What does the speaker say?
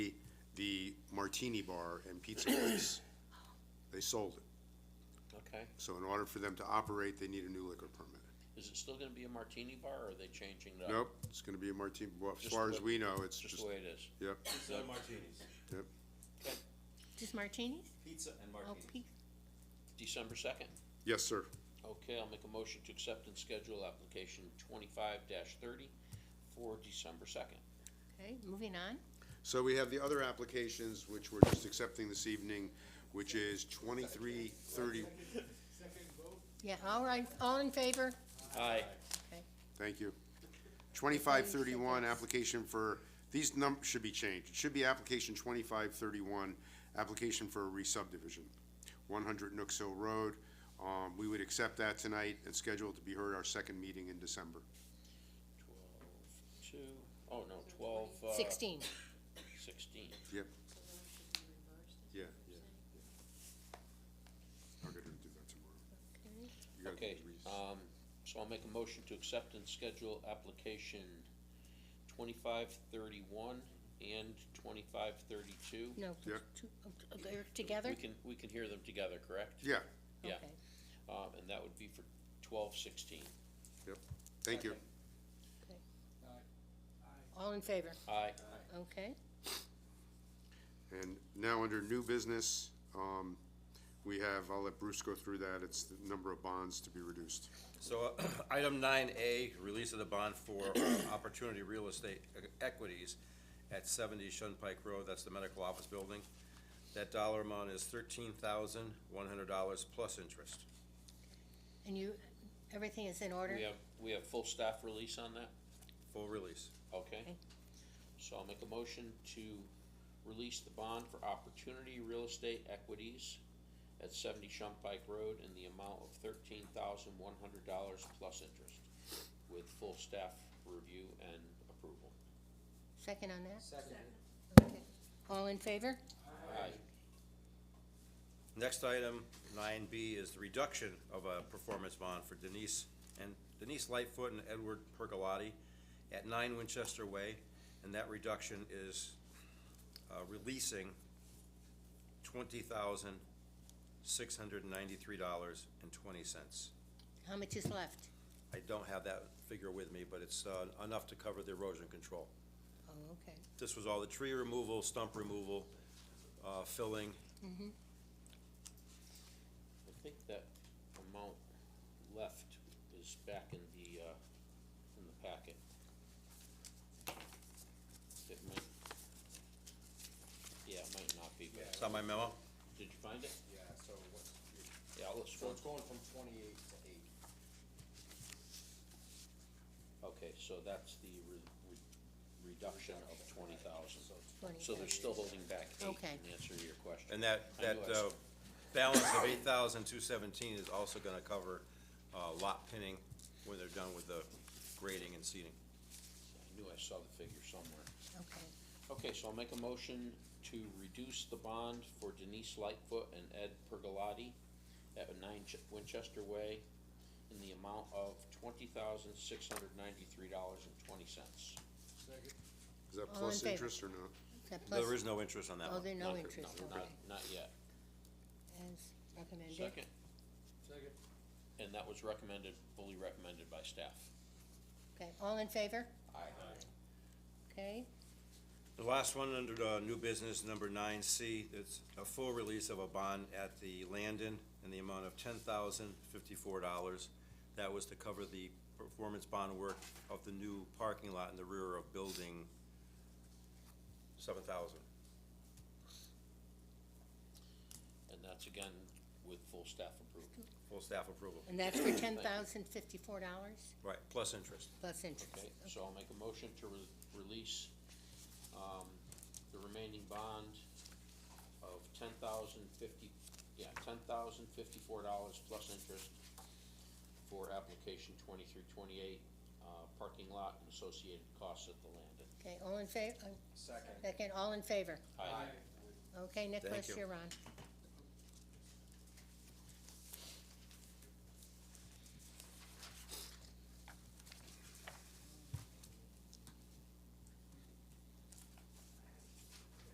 martini bar and pizza place. They sold it. Okay, So in order for them to operate, they need a new liquor permit. is it still gonna be a martini bar, or are they changing it up? Nope, it's gonna be a martini, well, as Just far as the- we know, it's Just just, the way it is. yep, Pizza and martinis. Just martinis? Pizza and Oh, martinis. pe- December second. yes, sir. Okay, I'll make a motion to accept and schedule application twenty-five thirty for December second. okay, moving on. So we have the other applications, which we're just accepting this evening, which is twenty-three thirty, Yeah, all right, all in favor? Aye. thank you. Twenty-five thirty-one, application for, these num, should be changed. It should be application twenty-five thirty-one, application for a re-subdivision, one hundred Nooks Hill Road. Um, we would accept that tonight and schedule it to be heard our second meeting in December. Twelve, two, oh no, twelve, uh. Sixteen. Sixteen. Yep. Yeah, yeah, yeah. I'll get her to do that tomorrow. You gotta do Okay, the res- um, so I'll make a motion to accept and schedule application twenty-five thirty-one and twenty-five thirty-two. No, Yeah. two, uh, they're together? We can, we can hear them together, correct? Yeah, Yeah, Okay. um, and that would be for twelve sixteen. thank you. All in favor? Aye. Okay, And now under new business, um, we have, I'll let Bruce go through that, it's the number of bonds to be reduced. So, uh, item nine A, release of the bond for Opportunity Real Estate e-, Equities at seventy Shunpike Road, that's the medical office building. That dollar amount is thirteen thousand, one hundred dollars plus interest. and you, everything is in order? We have, we have full staff release on that, Full release. okay? Okay. So I'll make a motion to release the bond for Opportunity Real Estate Equities at seventy Shumpike Road in the amount of thirteen thousand one hundred dollars plus interest with full staff review and approval. Second on that? Second. Okay. All in favor? Aye. Next item, nine B, is the reduction of a performance bond for Denise and Denise Lightfoot and Edward Pergolotti at nine Winchester Way, and that reduction is uh, releasing twenty thousand, six hundred and ninety-three dollars and twenty cents. How much is left? I don't have that figure with me, but it's uh, enough to cover the erosion control. Oh, okay, This was all the tree removal, stump removal, uh, filling, I think that amount left is back in the, uh, in the packet. It might, yeah, it might not be, but, is that my memo? did you find it? Yeah, so what's, Yeah, let's, so it's going from twenty-eight to eight. okay, so that's the re- re- reduction of twenty thousand. twenty. So they're still holding back eight, Okay. in answer to your question. And that, I that, knew I uh, s- balance of eight thousand two seventeen is also gonna cover, uh, lot pinning when they're done with the grading and seeding. I knew I saw the figure somewhere. Okay, Okay, so I'll make a motion to reduce the bond for Denise Lightfoot and Ed Pergolotti at nine Ch- Winchester Way in the amount of twenty thousand six hundred ninety-three dollars and twenty cents. Is that All in plus favor? interest or no? Is that plus, There is no interest on that oh, one. there's no interest, okay, Not, not yet. as recommended. Second? Second. And that was recommended, fully recommended by staff. Okay, all in favor? Aye. Okay, The last one under the new business, number nine C, it's a full release of a bond at the Landon in the amount of ten thousand fifty-four dollars. That was to cover the performance bond work of the new parking lot in the rear of building seven thousand. And that's again with full staff approval. Full staff approval, and that's for ten thousand fifty-four dollars right, plus interest. plus interest. Okay, so I'll make a motion to re- release, um, the remaining bond of ten thousand fifty, yeah, ten thousand fifty-four dollars plus interest for application twenty-three twenty-eight, uh, parking lot and associated costs at the Landon. Okay, all in favor, Second. second, all in favor? Aye. Okay, Thank Nicholas, you. you're on.